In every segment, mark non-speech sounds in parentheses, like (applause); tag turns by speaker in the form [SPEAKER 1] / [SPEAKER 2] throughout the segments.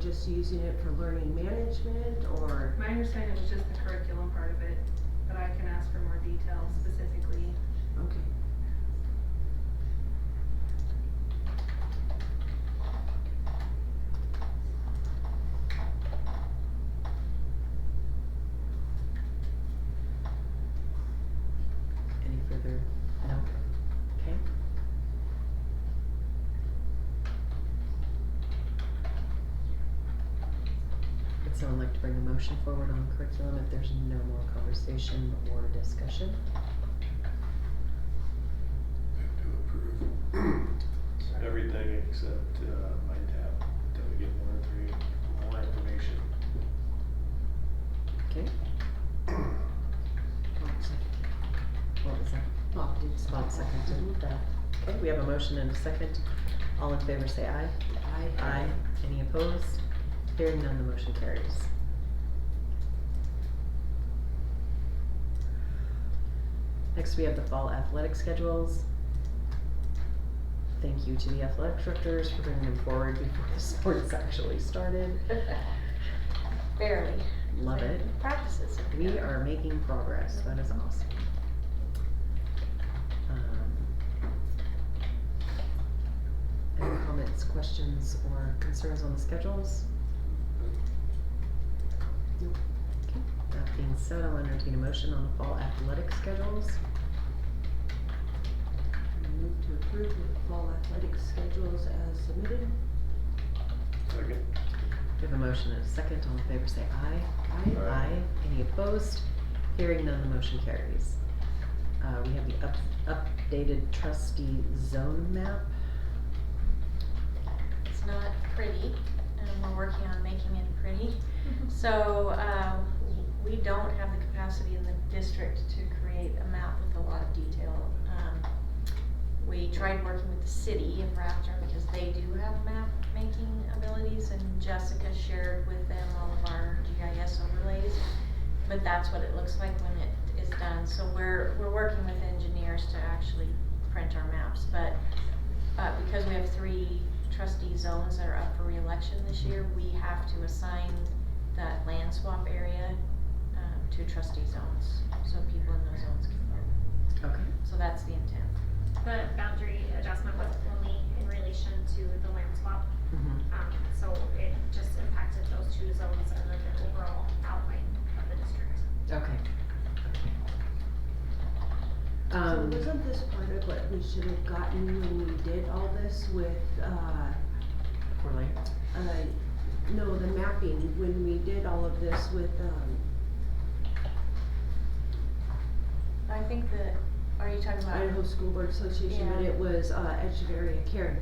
[SPEAKER 1] just using it for learning management or?
[SPEAKER 2] My understanding was just the curriculum part of it, but I can ask for more details specifically.
[SPEAKER 1] Okay.
[SPEAKER 3] Any further? No? Okay. Would someone like to bring a motion forward on curriculum if there's no more conversation or discussion?
[SPEAKER 4] Move to approve.
[SPEAKER 5] Everything except uh, my tab, until we get one or three more information.
[SPEAKER 3] Okay. What was that?
[SPEAKER 1] Bob did say
[SPEAKER 3] Bob
[SPEAKER 1] that.
[SPEAKER 3] seconded that. Okay, we have a motion and a second. All in favor say aye.
[SPEAKER 1] Aye.
[SPEAKER 3] Any opposed? Hearing none, the motion carries. Next, we have the fall athletic schedules. Thank you to the athletic directors for bringing them forward before the (laughs) sports actually started.
[SPEAKER 6] Barely.
[SPEAKER 3] Love it.
[SPEAKER 6] Practices.
[SPEAKER 3] We are making progress, that is awesome. Um, Any comments, questions, or concerns on the schedules?
[SPEAKER 1] Nope.
[SPEAKER 3] Okay, that being said, I'll entertain a motion on the fall athletic schedules.
[SPEAKER 1] Move to approve the fall athletic schedules as submitted.
[SPEAKER 5] Second?
[SPEAKER 3] We have a motion and a second, all in favor say aye.
[SPEAKER 1] Aye.
[SPEAKER 5] Aye.
[SPEAKER 3] Any opposed? Hearing none, the motion carries. Uh, we have the up, updated trustee zone map.
[SPEAKER 6] It's not pretty, and we're working on making it
[SPEAKER 1] (laughs)
[SPEAKER 6] pretty. So, uh, we don't have the capacity in the district to create a map with a lot of detail. Um, We tried working with the city in Raptor because they do have map-making abilities, and Jessica shared with them all of our GIS overlays. But that's what it looks like when it is done, so we're, we're working with engineers to actually print our maps, but Uh, because we have three trustee zones that are up for reelection this year, we have to assign that land swap area, um, to trustee zones, so people in those zones can vote.
[SPEAKER 3] Okay.
[SPEAKER 6] So that's the intent.
[SPEAKER 7] The boundary adjustment was only in relation to the land swap,
[SPEAKER 3] Mhm.
[SPEAKER 7] um, so it just impacted those two zones and then the overall outline of the district.
[SPEAKER 3] Okay.
[SPEAKER 1] So
[SPEAKER 3] Um,
[SPEAKER 1] wasn't this part of what we should have gotten when we did all this with, uh,
[SPEAKER 3] we're like,
[SPEAKER 1] uh, no, the mapping, when we did all of this with, um,
[SPEAKER 6] I think that, are you talking about?
[SPEAKER 1] Idaho School Board Association, but
[SPEAKER 6] Yeah.
[SPEAKER 1] it was, uh, Echeverria Karen.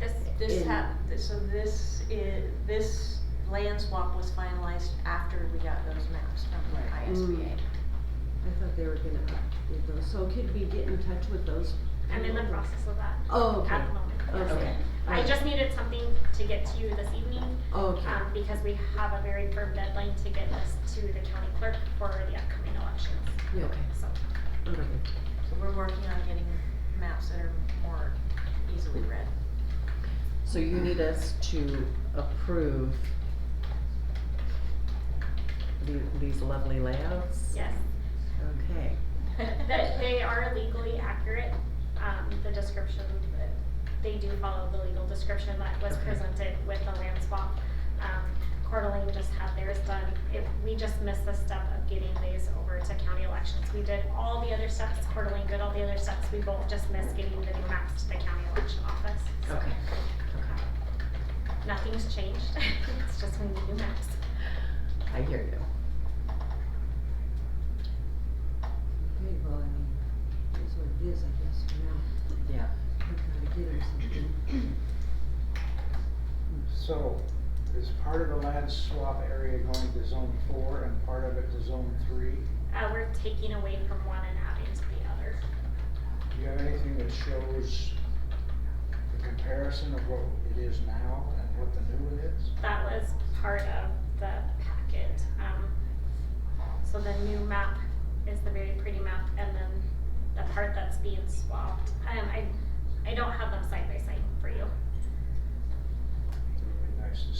[SPEAKER 7] This,
[SPEAKER 6] This
[SPEAKER 1] in-
[SPEAKER 6] hap, th- so this is, this land swap was finalized after we got those maps from
[SPEAKER 1] Right.
[SPEAKER 6] ISBA.
[SPEAKER 1] I thought they were gonna update those, so could we get in touch with those?
[SPEAKER 7] I'm in the process of that
[SPEAKER 1] Oh, okay,
[SPEAKER 7] at the moment.
[SPEAKER 1] okay.
[SPEAKER 7] I just needed something to get to you this evening,
[SPEAKER 3] Oh,
[SPEAKER 1] Okay,
[SPEAKER 7] um, because we have a very firm deadline to get this to the county clerk for the upcoming elections,
[SPEAKER 1] yeah,
[SPEAKER 3] okay,
[SPEAKER 7] so.
[SPEAKER 3] okay.
[SPEAKER 6] So we're working on getting maps that are more easily read.
[SPEAKER 3] So you need us to approve the, these lovely layouts?
[SPEAKER 7] Yes.
[SPEAKER 3] Okay,
[SPEAKER 7] That they are legally accurate, um, the description, that- they do follow the legal description that was
[SPEAKER 3] Okay.
[SPEAKER 7] presented with the land swap. Um, Coeur d'Alene just had theirs done, if, we just missed the step of getting these over to county elections. We did all the other steps, Coeur d'Alene did all the other steps, we both just missed getting the new maps to the county election office. So
[SPEAKER 3] okay, okay.
[SPEAKER 7] Nothing's changed, (laughs) it's just we need new maps.
[SPEAKER 3] I hear you.
[SPEAKER 1] okay, well, I mean, that's what it is, I guess, for now, uh,
[SPEAKER 3] Yeah.
[SPEAKER 1] we gotta get them something.
[SPEAKER 8] So, is part of the land swap area going to zone four and part of it to zone three?
[SPEAKER 7] Uh, we're taking away from one and adding to the other.
[SPEAKER 8] Do you have anything that shows the comparison of what it is now and what the new one is?
[SPEAKER 7] that was part of the packet. Um, so the new map is the very pretty map, and then the part that's being swapped. Um, I, I don't have them side by side for you.
[SPEAKER 8] It would be nice to see.